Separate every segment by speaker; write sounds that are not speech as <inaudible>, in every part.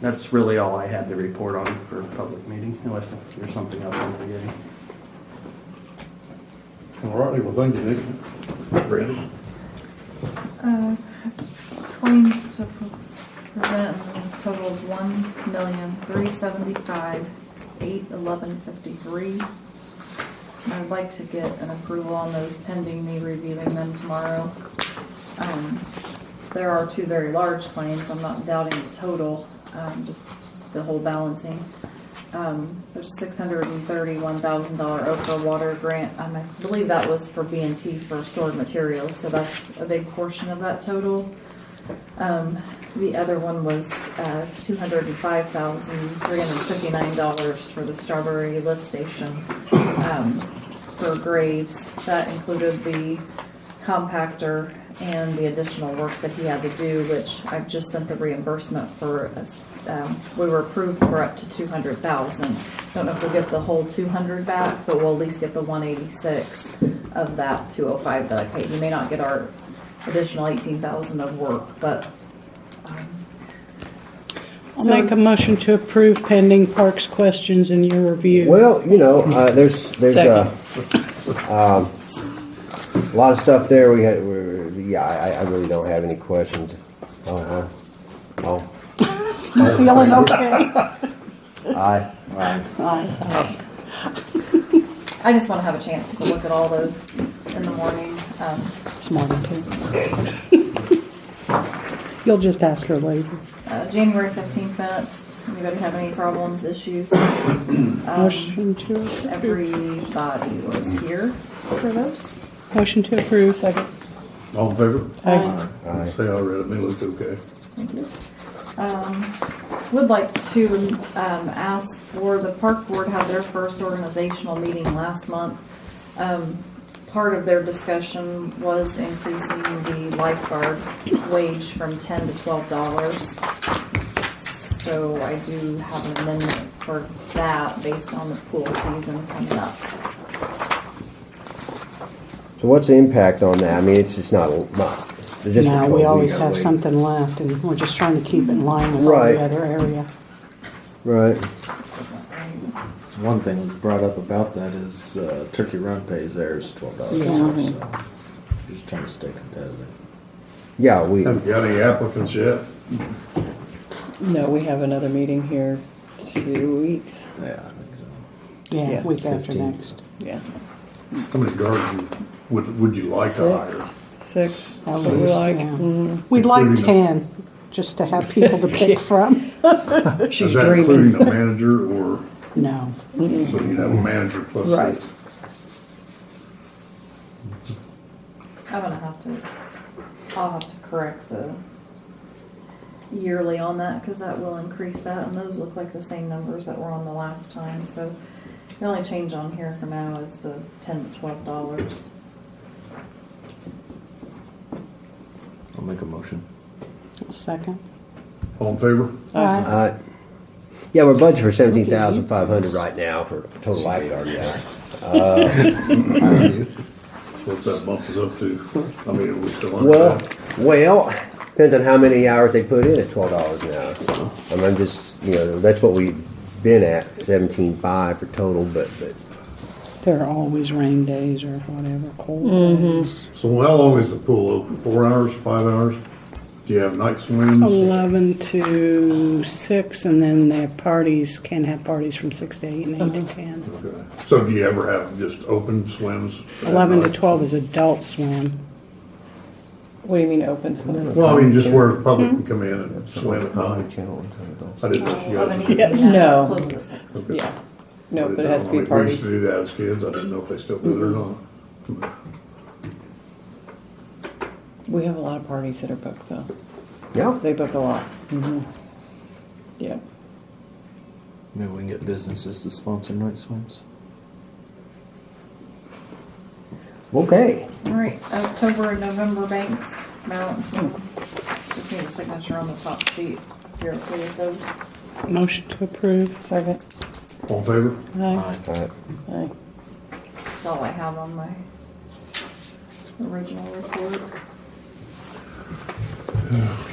Speaker 1: That's really all I had to report on for public meeting, unless there's something else I'm forgetting.
Speaker 2: All righty, well, thank you, Nick. Randy?
Speaker 3: Uh, Claims to pre- present totals one million, three seventy-five, eight eleven fifty-three. I would like to get an approval on those pending me reviewing them tomorrow. Um, There are two very large claims, I'm not doubting the total, um, just the whole balancing. Um, There's six hundred and thirty-one thousand dollar Oprah water grant, Um, I believe that was for B and T for stored materials, so that's a big portion of that total. Um, The other one was uh, $205,359 for the Strawberry Lift Station um, for grades. That included the compactor and the additional work that he had to do, which I've just sent the reimbursement for. um, We were approved for up to 200,000. Don't know if we'll get the whole 200 back, but we'll at least get the 186 of that 205 that I paid. We may not get our additional eighteen thousand of work, but, um,
Speaker 4: I'll make a motion to approve pending parks questions in your review.
Speaker 5: Well, you know, uh, there's, there's a, um, a lot of stuff there. We had, we're, yeah, I, I really don't have any questions. Oh, uh, oh,
Speaker 6: You feeling okay?
Speaker 5: <laughs> aye, aye.
Speaker 3: I just wanna have a chance to look at all those in the morning. Um,
Speaker 4: This morning, too. <laughs> You'll just ask her later.
Speaker 3: uh, January fifteenth minutes, anybody have any problems, issues? Um,
Speaker 4: Motion to approve.
Speaker 3: Everybody was here for those.
Speaker 4: Motion to approve. Second.
Speaker 2: All in favor?
Speaker 4: Aye.
Speaker 5: Aye.
Speaker 2: Say I read it, and it looked okay.
Speaker 3: Thank you. Um, Would like to um, ask for, the park board had their first organizational meeting last month. Um, Part of their discussion was increasing the lifeguard wage from ten to twelve dollars. So I do have an amendment for that based on the pool season coming up.
Speaker 5: So what's the impact on that? I mean, it's, it's not, not, they're just.
Speaker 4: No, we
Speaker 5: controlling
Speaker 4: always
Speaker 5: media.
Speaker 4: have something left, and we're just trying to keep it in line with all
Speaker 5: Right.
Speaker 4: the other area.
Speaker 5: Right.
Speaker 3: This isn't um, right.
Speaker 7: It's one thing was brought up about that is uh, Turkey Run pays theirs twelve dollars.
Speaker 4: Yeah.
Speaker 7: So just trying to stay competitive.
Speaker 5: Yeah, we,
Speaker 2: Haven't got any applicants yet.
Speaker 8: No, we have another meeting here two weeks.
Speaker 7: Yeah, I think so.
Speaker 4: Yeah,
Speaker 8: Yeah,
Speaker 4: week after
Speaker 7: 15.
Speaker 4: next.
Speaker 8: Yeah.
Speaker 2: How many guards you- would, would you like to hire?
Speaker 8: Six.
Speaker 4: At
Speaker 8: So we
Speaker 4: least,
Speaker 8: like- mm.
Speaker 4: yeah. We'd like
Speaker 2: Including-
Speaker 4: ten, just to have people to
Speaker 8: <laughs>
Speaker 4: pick from.
Speaker 2: Is that including a manager or,
Speaker 4: No.
Speaker 2: so you'd have a manager plus
Speaker 8: Right.
Speaker 2: six?
Speaker 3: I'm gonna have to, I'll have to correct the yearly on that, cause that will increase that, and those look like the same numbers that were on the last time, so. The only change on here for now is the ten to twelve dollars.
Speaker 7: I'll make a motion.
Speaker 4: Second.
Speaker 2: All in favor?
Speaker 4: Aye.
Speaker 5: uh, yeah, we're budgeted for seventeen thousand five hundred right now for total lifeguard, yeah.
Speaker 2: What's that bump us up to? I mean, are we still under
Speaker 5: Well,
Speaker 2: that?
Speaker 5: well, depends on how many hours they put in at twelve dollars an hour. I mean, I'm just, you know, that's what we've been at, seventeen five for total, but, but
Speaker 4: There are always rain days or whatever, cold days.
Speaker 2: So how long is the pool open? Four hours, five hours? Do you have night swims?
Speaker 4: Um, 11 to 6, and then they have parties, can have parties from 6 to 8 and 8 to 10.
Speaker 2: Okay. So do you ever have just open swims? at
Speaker 4: 11 to
Speaker 2: night?
Speaker 4: 12 is adult swim.
Speaker 8: What do you mean open? session?
Speaker 2: Well, I mean, just where the public can come in and swim at night.
Speaker 7: channel and tell adults.
Speaker 2: I didn't know
Speaker 3: Oh,
Speaker 2: if you guys.
Speaker 8: No.
Speaker 3: Close to six.
Speaker 2: Okay.
Speaker 8: Yeah. No,
Speaker 2: I
Speaker 8: but it
Speaker 2: didn't
Speaker 8: has
Speaker 2: know.
Speaker 8: to be
Speaker 2: We used to
Speaker 8: parties. Mm-hmm.
Speaker 2: do that as kids. I didn't know if they still do it or not.
Speaker 8: We have a lot of parties that are booked though.
Speaker 5: yeah.
Speaker 8: They book a lot. Yeah.
Speaker 7: Maybe we can get businesses to sponsor night swims.
Speaker 5: Okay.
Speaker 3: Alright, October and November banks, balance, and just need a signature on the top sheet, if you're okay with those.
Speaker 4: Motion to approve.
Speaker 8: Second.
Speaker 2: All in favor?
Speaker 4: Aye.
Speaker 5: All right.
Speaker 8: Aye.
Speaker 3: That's all I have on my original report.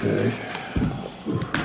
Speaker 2: Okay.